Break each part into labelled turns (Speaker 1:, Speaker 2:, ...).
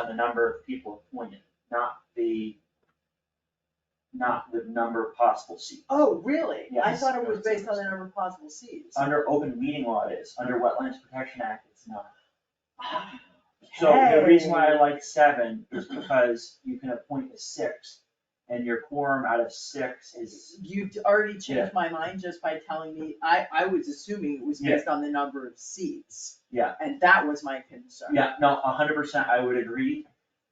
Speaker 1: on the number of people appointed, not the, not the number of possible seats.
Speaker 2: Oh, really? I
Speaker 1: Yes.
Speaker 2: thought it was based on the number of possible seats.
Speaker 1: Under open meeting law it is, under Wetlands Protection Act, it's not. So the reason why I like seven is because you can appoint a sixth, and your quorum out of six is,
Speaker 2: You already
Speaker 1: Yeah.
Speaker 2: changed my mind just by telling me, I, I was assuming it was
Speaker 1: Yeah.
Speaker 2: based on the number of seats.
Speaker 1: Yeah.
Speaker 2: And that was my concern.
Speaker 1: yeah, no, a hundred percent, I would agree,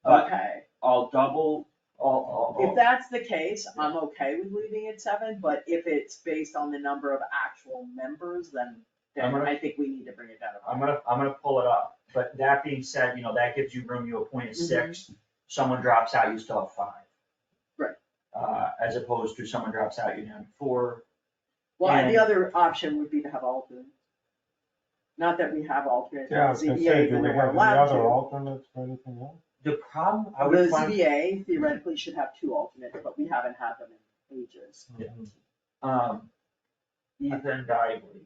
Speaker 1: but Oh.
Speaker 2: Okay,
Speaker 1: I'll double, I'll, I'll-
Speaker 2: if that's the case, I'm okay with leaving it seven, but if it's based on the number of actual members, then,
Speaker 3: I'm
Speaker 2: then
Speaker 3: gonna-
Speaker 2: I think we need to bring it down. to
Speaker 3: I'm gonna, I'm gonna pull it up, but that being said, you know, that gives you room, you appoint a six, someone drops out, you still have five.
Speaker 2: Right.
Speaker 3: Uh, as opposed to someone drops out, you have four,
Speaker 2: Well, and the
Speaker 3: And-
Speaker 2: other option would be to have alternates. Not that we have alternates,
Speaker 4: Yeah, I was
Speaker 2: the
Speaker 4: gonna say,
Speaker 2: ZBA,
Speaker 4: do
Speaker 2: even
Speaker 4: we
Speaker 2: though we're
Speaker 4: have any
Speaker 2: allowed
Speaker 4: other
Speaker 2: to.
Speaker 4: alternates for anything else?
Speaker 3: the problem, I
Speaker 2: The
Speaker 3: would find,
Speaker 2: ZBA theoretically should have two alternates, but we haven't had them in ages.
Speaker 3: um, Ethan Dively.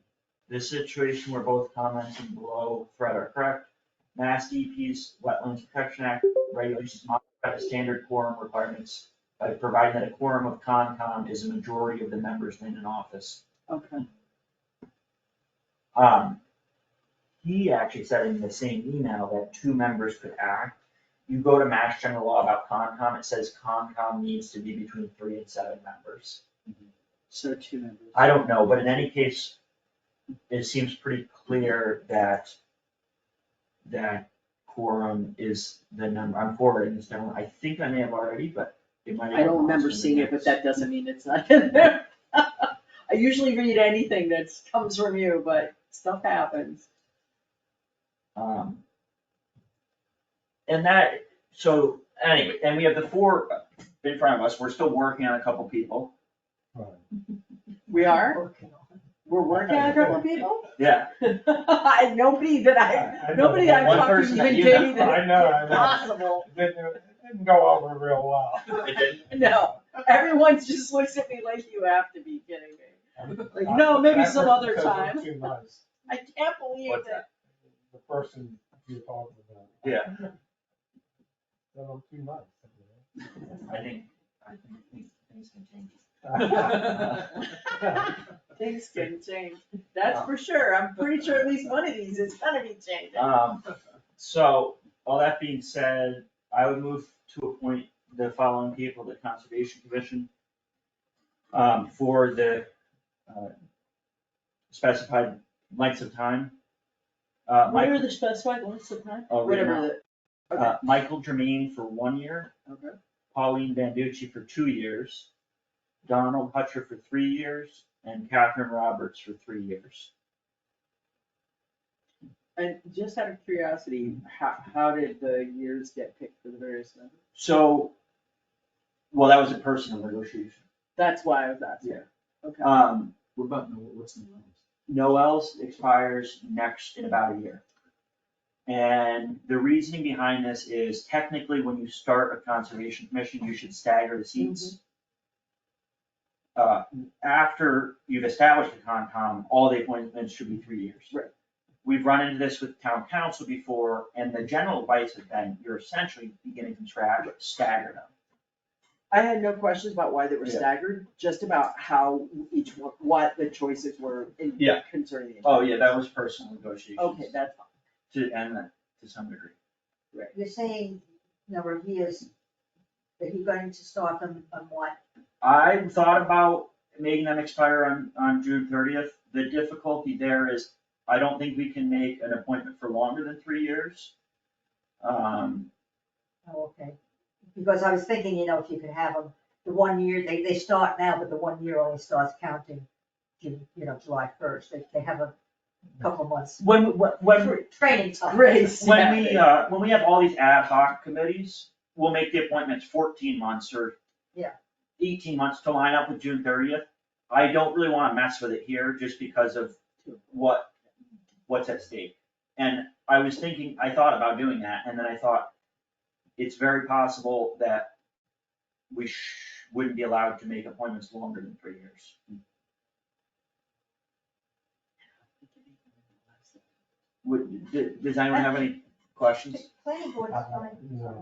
Speaker 3: This situation where both comments and below thread are correct, Mass DEP's Wetlands Protection Act regulations modify the standard quorum requirements by providing that a quorum of Concom is a majority of the members in an office.
Speaker 2: Okay.
Speaker 3: Um, he actually said in the same email that two members could act. You go to Mass General Law about Concom, it says Concom needs to be between three and seven members.
Speaker 2: So two members.
Speaker 3: I don't know, but in any case, it seems pretty clear that that quorum is the number, I'm forwarding this down, I think I may have already, but it might have.
Speaker 2: I don't remember
Speaker 3: lost in
Speaker 2: seeing
Speaker 3: the
Speaker 2: it, but
Speaker 3: mix.
Speaker 2: that doesn't mean it's not in there. I usually read anything that comes from you, but stuff happens.
Speaker 3: Um. And that, so anyway, and we have the four
Speaker 1: in front of us, we're still working on a couple people.
Speaker 2: We are, we're working on a couple of people?
Speaker 1: Yeah,
Speaker 2: And nobody that I,
Speaker 4: I- I know
Speaker 2: nobody I've
Speaker 4: one
Speaker 2: talked to
Speaker 1: person that
Speaker 2: even
Speaker 1: you know.
Speaker 2: gave me that
Speaker 4: I know, I
Speaker 2: it's
Speaker 4: know.
Speaker 2: possible.
Speaker 4: It didn't, it didn't go over real well.
Speaker 1: it did,
Speaker 2: No, everyone just looks at me like you have to be kidding me. Like,
Speaker 4: I-
Speaker 2: no, maybe
Speaker 4: that
Speaker 2: some
Speaker 4: was
Speaker 2: other
Speaker 4: because we're
Speaker 2: time.
Speaker 4: too nice.
Speaker 2: I can't believe
Speaker 1: What's
Speaker 2: that.
Speaker 4: The person you talked about.
Speaker 1: Yeah.
Speaker 4: Then I'm too nice. you
Speaker 3: I think, I think things can change.
Speaker 4: know?
Speaker 2: Things can change, that's for sure. I'm pretty sure at least one of these is gonna be changing.
Speaker 1: Uh,
Speaker 3: Um, so, all that being said, I would move to appoint the following people to the Conservation Commission um, for the, uh, specified lengths of time. Uh,
Speaker 2: What
Speaker 3: Michael,
Speaker 2: are the specified ones of time?
Speaker 3: Oh, right now.
Speaker 2: Whatever the, okay,
Speaker 3: uh, Michael Jermaine for one year,
Speaker 1: Uh,
Speaker 2: okay.
Speaker 3: Pauline Banducci for two years, Donald Hutcher for three years, and Catherine Roberts for three years.
Speaker 2: And just out of curiosity, how, how did the years get picked for the various members?
Speaker 3: So, well, that was a personal negotiation.
Speaker 2: That's why I was asking. Okay,
Speaker 3: Um,
Speaker 1: we're about, to know what's in the lines.
Speaker 3: Noel's expires next, in about a year. And the reasoning behind this is technically when you start a conservation commission, you should stagger the
Speaker 2: Mm-hmm.
Speaker 3: seats. Uh, after you've established a Concom, all the appointments should be three years.
Speaker 2: Right.
Speaker 3: We've run into this with town council before, and the general advice has been, you're essentially beginning from scratch, stagger them.
Speaker 2: I had no questions about why they were
Speaker 1: Yeah.
Speaker 2: staggered, just about how each one, what the choices were in
Speaker 1: Yeah.
Speaker 2: concerning. the-
Speaker 1: Oh, yeah, that was personal negotiations.
Speaker 2: Okay, that's fine.
Speaker 1: To, and that, to some degree.
Speaker 5: You're saying number of years, that you're going to start them on what?
Speaker 3: I thought about making them expire on, on June thirtieth. The difficulty there is, I don't think we can make an appointment for longer than three years. Um,
Speaker 5: Oh, okay. Because I was thinking, you know, if you could have them, the one year, they, they start now, but the one year only starts counting, June, you know, July first, they, they have a couple months.
Speaker 3: when, when- when,
Speaker 5: for Training time.
Speaker 2: Grace.
Speaker 3: when we, uh, when we have all these ad hoc committees, we'll make the appointments fourteen months or
Speaker 5: Yeah.
Speaker 3: eighteen months to line up with June thirtieth. I don't really wanna mess with it here just because of what, what's at stake. And I was thinking, I thought about doing that, and then I thought, it's very possible that we sh- wouldn't be allowed to make appointments longer than three years. Would, d- does anyone have any questions?
Speaker 5: planning board's
Speaker 4: Uh-huh.
Speaker 5: fine, so.